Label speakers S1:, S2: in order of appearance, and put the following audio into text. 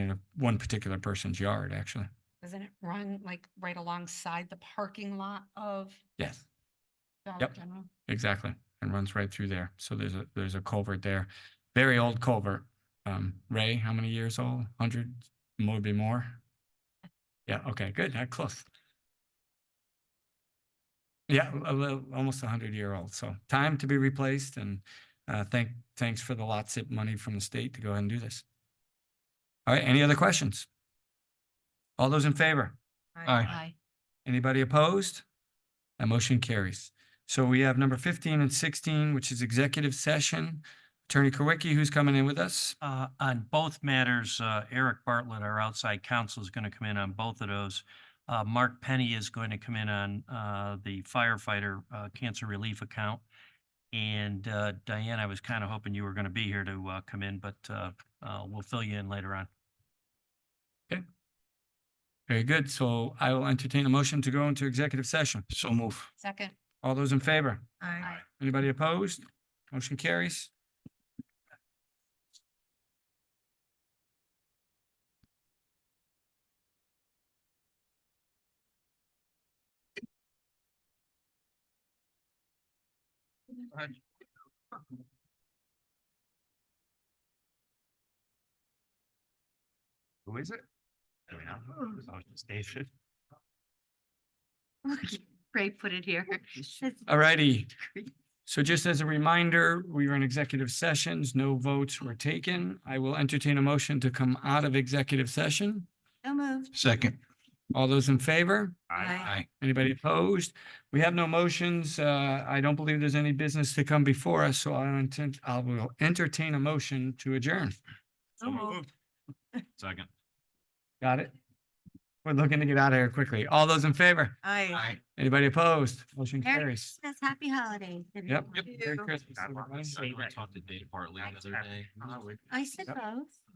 S1: in a- one particular person's yard, actually.
S2: Doesn't it run like right alongside the parking lot of
S1: Yes,
S2: Dollar
S1: Yep.
S2: General?
S1: exactly. And runs right through there. So there's a, there's a culvert there. Very old culvert. Um, Ray, how many years old? Hundred, maybe more? Yeah, okay, good, that close. Yeah, a little, almost a hundred year old. So time to be replaced and, uh, thank, thanks for the lot zip money from the state to go ahead and do this. All right, any other questions? All those in favor? Aye. Anybody opposed? That motion carries. So we have number fifteen and sixteen, which is executive session. Attorney Kowicki, who's coming in with us?
S3: Uh, on both matters, uh, Eric Bartlett, our outside counsel, is going to come in on both of those. Uh, Mark Penny is going to come in on, uh, the firefighter, uh, cancer relief account. And, uh, Diane, I was kind of hoping you were going to be here to, uh, come in, but, uh, uh, we'll fill you in later on.
S1: Very good. So I will entertain a motion to go into executive session. So move.
S2: Second.
S1: All those in favor?
S2: Aye.
S1: Anybody opposed? Motion carries.
S4: Who is it? I mean, I was just David.
S2: Ray put it here.
S1: All righty. So just as a reminder, we were in executive sessions, no votes were taken. I will entertain a motion to come out of executive session.
S2: No moved.
S4: Second.
S1: All those in favor?
S2: Aye.
S1: Anybody opposed? We have no motions. Uh, I don't believe there's any business to come before us, so I intend, I will entertain a motion to adjourn.
S4: So moved. Second.
S1: Got it? We're looking to get out of here quickly. All those in favor?
S4: Aye.
S1: Anybody opposed? Motion
S2: Merry
S1: carries.
S2: Christmas, happy holidays.
S1: Yep.
S2: everyone.
S1: Merry Christmas, everybody.
S4: I talked to Dave Bartley the other day.
S2: I suppose.